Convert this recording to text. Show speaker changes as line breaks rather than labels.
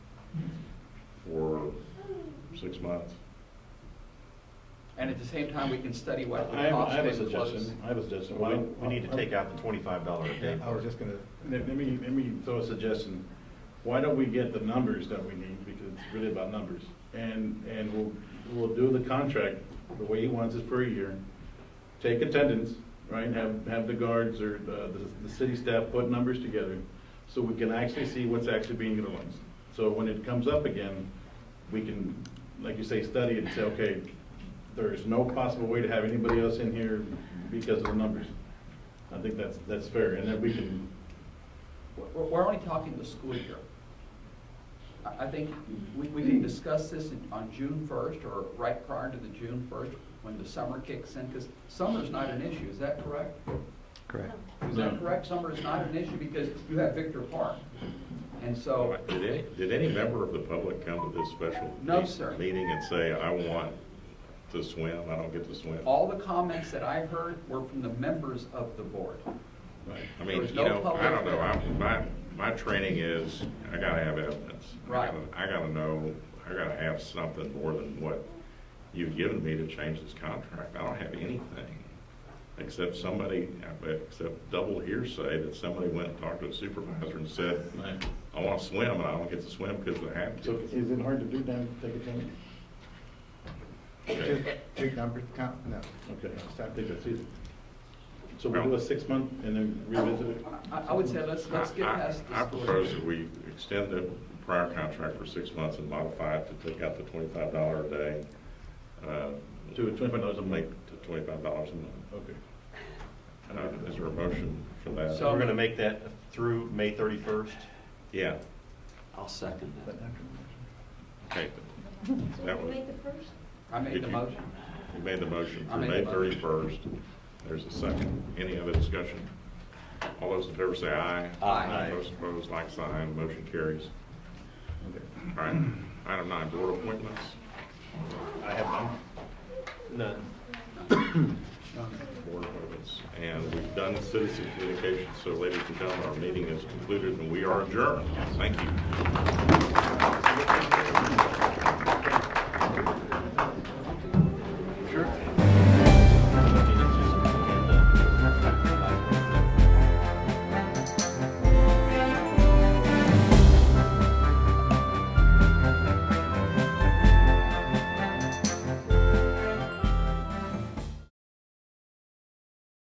six months.
And at the same time, we can study
I
what
have,
the
I
cost
have a
is to close.
suggestion, I have a suggestion.
We,
Why-
we need to take out the twenty-five dollar a day.
I was just gonna,
Let let me, let me throw a suggestion. Why don't we get the numbers that we need, because it's really about numbers? And, and we'll, we'll do the contract the way he wants it per year. Take attendance, right, have, have the guards or the, the- the city staff put numbers together, so we can actually see what's actually being utilized. So when it comes up again, we can, like you say, study it and say, okay, there's no possible way to have anybody else in here because of the numbers. I think that's, that's fair, and then we can
We're, we're only talking the school year. I, I think we, we can discuss this in- on June first or right prior to the June first, when the summer kicks in, because summer's not an issue, is that correct?
correct.
Is that
No.
correct? Summer is not an issue because you have Victor Park. And so,
Did any, did any member of the public come to this special?
No,
me-
sir.
Meeting and say, I want to swim, I don't get to swim?
all the comments that I heard were from the members of the board.
I
there
mean,
was
you
no
know, I
public-
don't know, I'm, my, my training is, I gotta have evidence. I
Right.
gotta- I gotta know, I gotta have something more than what you've given me to change this contract. I don't have anything, except somebody, except double hearsay that somebody went and talked to the supervisor and said,
Right.
I want to swim, and I don't get to swim because I have
So
to.
is it hard to do then, take a ten?
Just two numbers, count, no.
Okay, I think that's it. So we'll do a six-month and then revisit it?
I, I would say let's, let's get
I- I-
past the
I
school
propose
year.
that we extend the prior contract for six months and modify it to take out the twenty-five dollar a day. uh,
To twenty-five dollars a
Make
month?
to twenty-five dollars a month.
Okay.
Uh, Is there a motion for that?
So-
We're gonna make that through May thirty-first.
Yeah,
I'll second that.
okay.
So
That
we
was-
made the first?
I made
Did
the
you-
motion.
You made the motion
I
through
made
May
the motion.
thirty-first. There's a second. Any other discussion? All those in favor say aye.
Aye.
Those opposed, like sign, motion carries.
Okay.
All right, item nine, board appointments.
I have none. None.
board appointments. And we've done citizen communication, so ladies and gentlemen, our meeting is concluded and we are adjourned. Thank you.